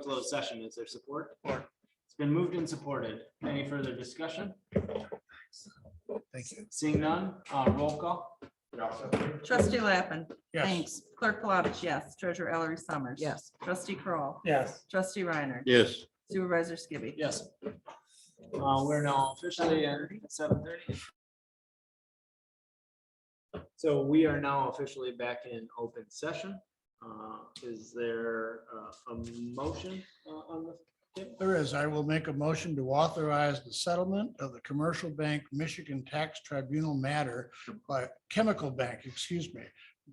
closed session. Is there support? It's been moved and supported. Any further discussion? Thank you. Seeing none, uh, roll call. Trustee Lappin. Yes. Clerk Palovich, yes. Treasurer Ellery Summers. Yes. Trustee Kroll, Yes. Trustee Reiner. Yes. Supervisor Skibby. Yes. Uh, we're now officially at seven thirty. So we are now officially back in open session. Uh, is there uh, a motion uh, on the? There is. I will make a motion to authorize the settlement of the Commercial Bank Michigan Tax Tribunal matter by Chemical Bank, excuse me,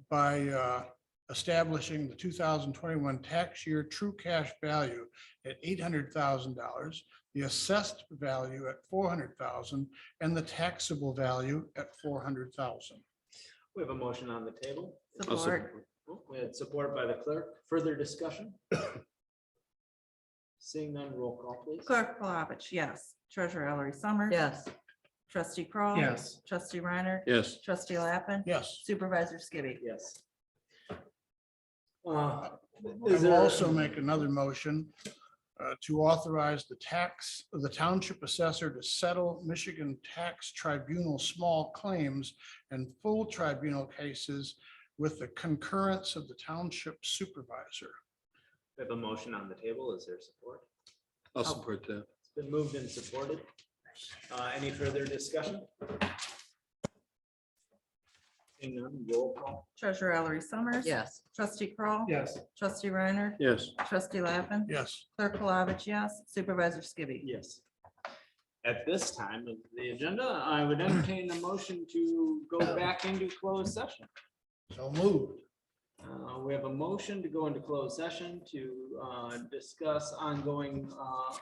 by uh, establishing the two thousand twenty-one tax year true cash value at eight hundred thousand dollars, the assessed value at four hundred thousand, and the taxable value at four hundred thousand. We have a motion on the table. I'll Support. We had support by the clerk. Further discussion? Seeing none, roll call please. Clerk Palovich, yes. Treasurer Ellery Summers. Yes. Trustee Kroll, Trustee Reiner. Yes. Trustee Lappin. Yes. Supervisor Skibby. Yes. Uh, I Is will there- also make another motion uh, to authorize the tax, the township assessor to settle Michigan Tax Tribunal small claims and full tribunal cases with the concurrence of the township supervisor. We have a motion on the table. Is there support? I'll support that. It's been moved and supported. Uh, Any further discussion? Seeing none, roll call. Treasurer Ellery Summers. Yes. Trustee Kroll, Yes. Trustee Reiner. Yes. Trustee Lappin. Yes. Clerk Palovich, yes. Supervisor Skibby. Yes. At this time of the agenda, I would entertain a motion to go back into closed session. So moved. Uh, We have a motion to go into closed session to uh, discuss ongoing uh,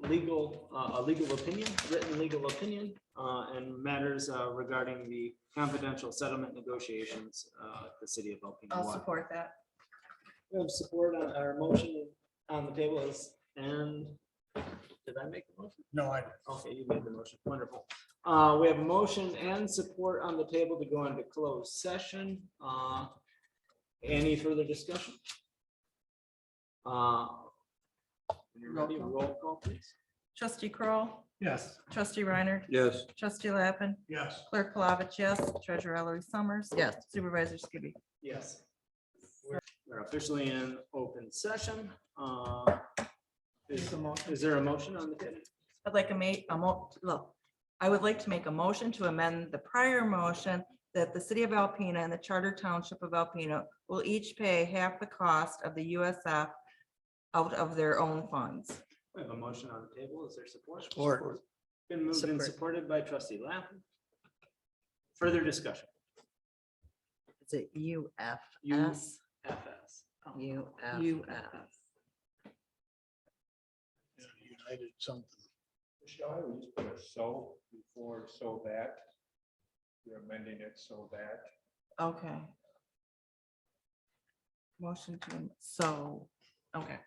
legal, uh, a legal opinion, written legal opinion, uh, and matters uh, regarding the confidential settlement negotiations uh, at the city of Alpena. I'll Water. support that. We have support on our motion on the table is, and did I make the motion? No, I, Okay, you made the motion. Wonderful. Uh, we have a motion and support on the table to go into closed session. Uh, any further discussion? Uh, when you're ready, roll call please. Trustee Kroll, yes. Trustee Reiner. Yes. Trustee Lappin. Yes. Clerk Palovich, yes. Treasurer Ellery Summers. Yes. Supervisor Skibby. Yes. We're- We're officially in open session. Uh, is, is there a motion on the table? I'd like to make a mo, look, I would like to make a motion to amend the prior motion that the city of Alpena and the charter township of Alpena will each pay half the cost of the USF out of their own funds. We have a motion on the table. Is there support? Support. Been moved and Support. supported by trustee Lappin. Further discussion. Is it U F U- S? FS. U F. U F. United something. Michelle, I would just put a so before so that. You're amending it so that. Okay. Motion to, am- so, okay.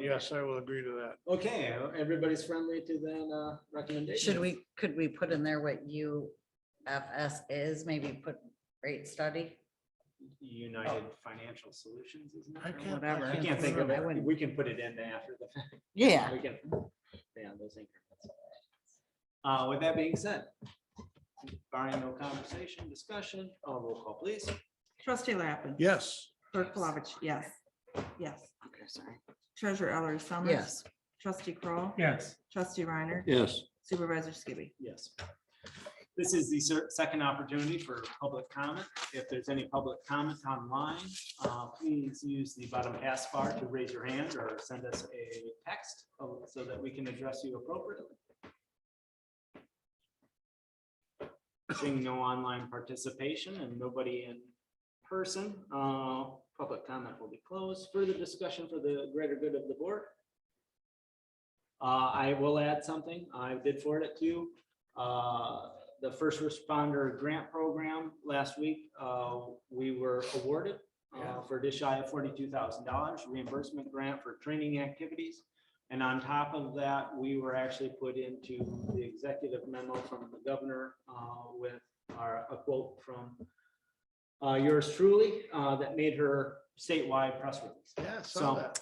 Yes, I will agree to that. Okay, everybody's friendly to that uh, recommendation. Should we, could we put in there what U F S is? Maybe put rate study? United Financial Solutions, isn't it? I Or can't- I whatever. I can't can't think of remember. I it. wouldn't- We can put it in after the fact. Yeah. We can. Yeah, those increments. Uh, with that being said, barring no conversation, discussion, uh, roll call please. Trustee Lappin. Yes. Clerk Palovich, yes. Yes. Okay, sorry. Treasurer Ellery Summers. Yes. Trustee Kroll, Yes. Trustee Reiner. Yes. Supervisor Skibby. Yes. This is the cer- second opportunity for public comment. If there's any public comment online, uh, please use the bottom pass bar to raise your hand or send us a text uh, so that we can address you appropriately. Seeing no online participation and nobody in person, uh, public comment will be closed. Further discussion for the greater good of the board. Uh, I will add something. I did forward it to you. Uh, the first responder grant program last week, uh, we were awarded uh, for just shy of forty-two thousand dollars reimbursement grant for training activities. And on top of that, we were actually put into the executive memo from the governor, uh, with our, a quote from uh, yours truly, uh, that made her statewide press release. Yeah, I So saw that.